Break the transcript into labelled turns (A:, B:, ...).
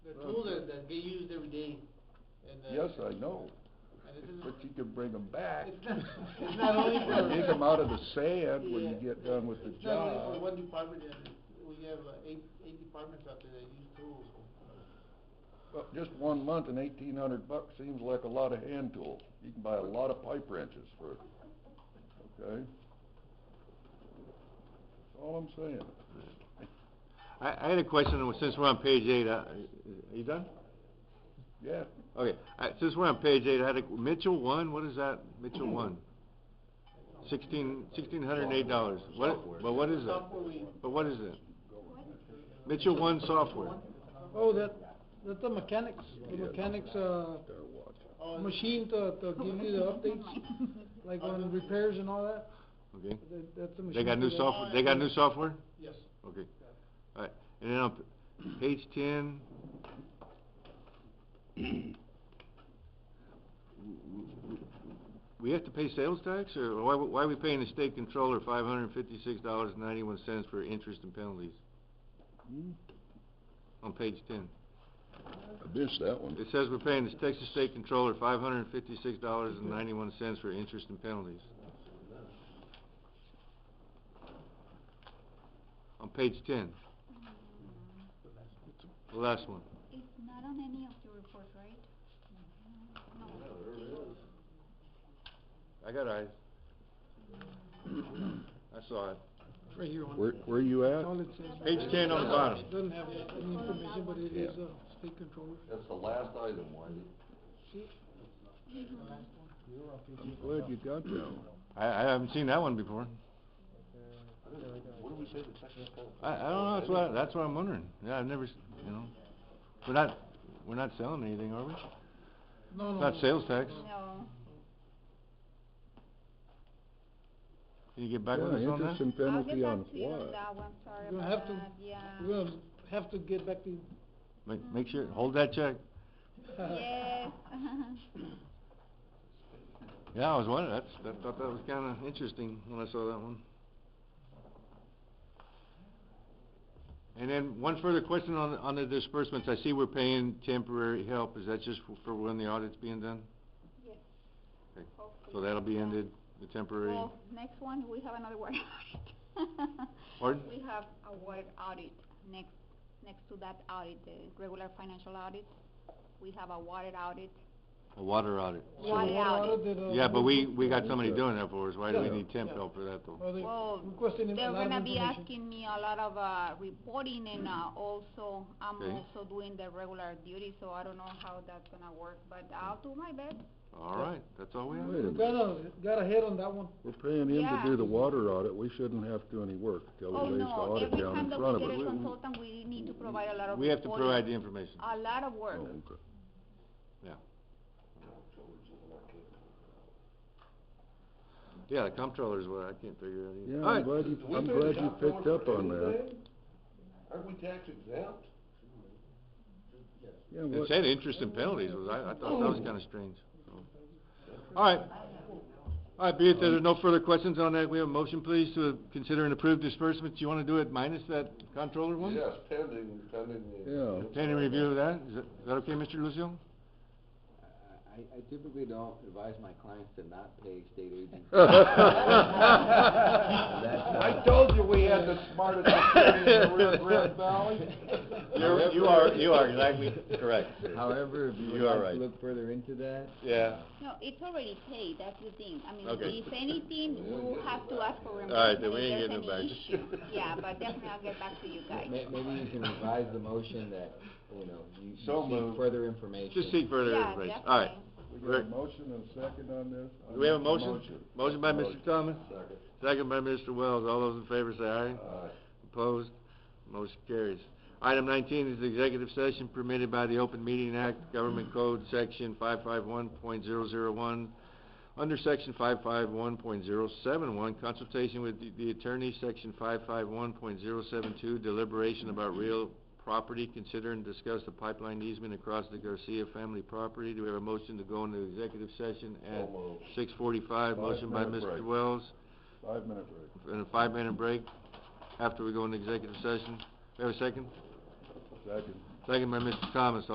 A: get used every day. and, uh,
B: Yes, I know,
A: And it isn't,
B: but you can bring them back.
A: it's not, it's not only for.
B: Dig them out of the sand when you
A: Yeah.
B: get done with the
A: It's not only for
B: job.
A: one department, and we have uh, eight, eight departments out there that use tools.
B: Well, Just one month and eighteen hundred bucks seems like a lot of hand tools. You can buy a lot of pipe wrenches for, okay? That's all I'm saying.
C: I, I had a question, since we're on page eight, uh, are you done?
B: Yeah,
C: Okay, I, since we're on page eight, I had a, Mitchell one, what is that? Mitchell one? Sixteen, sixteen hundred and eight dollars. What, but what is that?
A: Software we-
C: But what is it? Mitchell one software.
D: Oh, that, that's the mechanics, the
B: Yeah.
D: mechanics, uh,
B: they're watching.
A: Oh, and-
D: machine to, to give you the updates, like on repairs and all that,
C: Okay,
D: that, that's the machine.
C: they got new
D: for that.
C: software, they got new software?
A: Yes.
C: Okay, alright, and then on p- page ten. We have to pay sales tax, or why, why are we paying the state controller five hundred and fifty-six dollars and ninety-one cents for interest and penalties
B: Hmm,
C: on page ten?
B: I missed that one.
C: It says we're paying the Texas State Controller five hundred and fifty-six dollars and ninety-one cents for interest and penalties. On page ten. The last one.
E: It's not on any of your reports, right? No.
C: I got eyes. I saw it.
D: It's Right here on.
B: Where, where are you at?
D: All it says.
C: Page 10 on the bottom.
D: It Doesn't have any information, but it is
B: Yeah.
D: a state controller.
B: That's the last item, Wendy.
D: See,
B: I'm glad you got that one.
C: I, I haven't seen that one before.
B: What did we say the Texas
C: I, I don't know, that's what, I- that's what I'm wondering. Yeah, I've never, s- you know, we're not, we're not selling anything, are we?
D: No, no.
C: Not
D: no.
C: sales tax.
E: No.
C: Can you get back with us on that?
B: interest and
E: I'll
B: penalty
E: get
B: on
E: back to you on
B: what?
E: that one, sorry
D: You'll
E: about
D: have to-
E: that, yeah.
D: We're gonna have to get back to you.
C: Make, make sure, hold that check.
E: Yes.
C: Yeah, I was wondering, that's, I thought that was kinda interesting when I saw that one. And then one further question on, the- on the disbursements, I see we're paying temporary help, is that just for- for when the audit's being done?
E: Yes.
C: Okay.
E: Hopefully,
C: So that'll be
E: yeah.
C: ended, the temporary,
E: Well, next one, we have another water audit.
C: Pardon?
E: We have a water audit, next, next to that audit, the regular financial audit, we have a water audit.
C: a water audit.
D: So
E: Water
D: what
E: audit.
D: audit did, uh,
C: Yeah, but we, we got
B: Yeah.
C: somebody doing that for us, why do we
B: Yeah.
C: need temp
D: Yeah.
C: help for that though?
D: Well, they
E: Well,
D: requesting a
E: They're
D: lot of
E: gonna be
D: information.
E: asking me a lot of, uh, reporting and, uh, also, I'm
C: Okay.
E: also doing the regular duty, so I don't know how that's gonna work, but I'll do my best.
C: Alright, that's all we have.
B: Wait a
D: We Got a, got a head on that one.
B: We're paying him to do
E: Yeah.
B: the water audit, we shouldn't have to do any work till
E: Oh,
B: he lays the
E: no,
B: audit
E: every
B: down
E: time
B: in
E: that
B: front
E: we
B: of us. Oh,
E: get a consultant, we need to provide a lot of reporting.
C: We have to provide the information.
E: A lot of work.
B: Oh, okay.
C: Yeah, the comptroller's what I can't figure out either.
B: Yeah,
C: All
B: I'm
C: right.
B: glad you, I'm glad you picked up on that.
F: Aren't we tax exempt?
B: Yeah,
C: It
B: what,
C: said interest and penalties, was, I, I thought that was kinda strange, so. Alright, alright, be it that there are no further questions on that, we have a motion please to consider and approve disbursements, you wanna do it minus that controller one?
F: Yes, pending, pending the.
B: Yeah.
C: Pending review of that, is that, is that okay, Mr. Lucio?
G: I, I typically don't advise my clients to not pay state agency.
F: I told you we had the smartest attorney in the Rio Grande Valley.
C: You're- you are- you are exactly correct.
G: However, if you
C: You
G: would
C: are
G: like
C: right.
G: to look further into that.
C: Yeah.
E: No, it's already paid, that's the thing. I mean,
C: Okay.
E: if anything, we'll have to ask for reimbursement.
C: Alright, then we
E: if
C: ain't
E: there's
C: getting
E: any issue. Yeah, but definitely I'll get back to you
G: ma-
E: guys.
G: Maybe you can revise the motion that, you know, you you
C: So moved.
G: seek further information.
C: Just seek further
E: Yeah,
C: information, alright.
E: definitely.
B: we got a motion and a second on this?
C: Do we have a
B: I'll make the
C: motion? Motion by Mr. Thomas,
F: Second.
C: second by Mr. Wells, all those in favor say aye.
F: Aye.
C: Opposed? Motion carries. Item nineteen is the executive session permitted by the Open Meeting Act, Government Code, Section five-five-one point zero-zero-one, under Section five-five-one point zero-seven-one, consultation with the- the attorney, Section five-five-one point zero-seven-two, deliberation about real property, consider and discuss the pipeline easement across the Garcia family property. Do we have a motion to go into executive session at
B: So moved.
C: six forty-five? Motion by
B: Five-minute
C: Mr.
B: break.
C: Wells
B: Five minute break.
C: and a five-minute break after we go into executive session. We have a second?
B: Second.
C: Second by Mr. Thomas.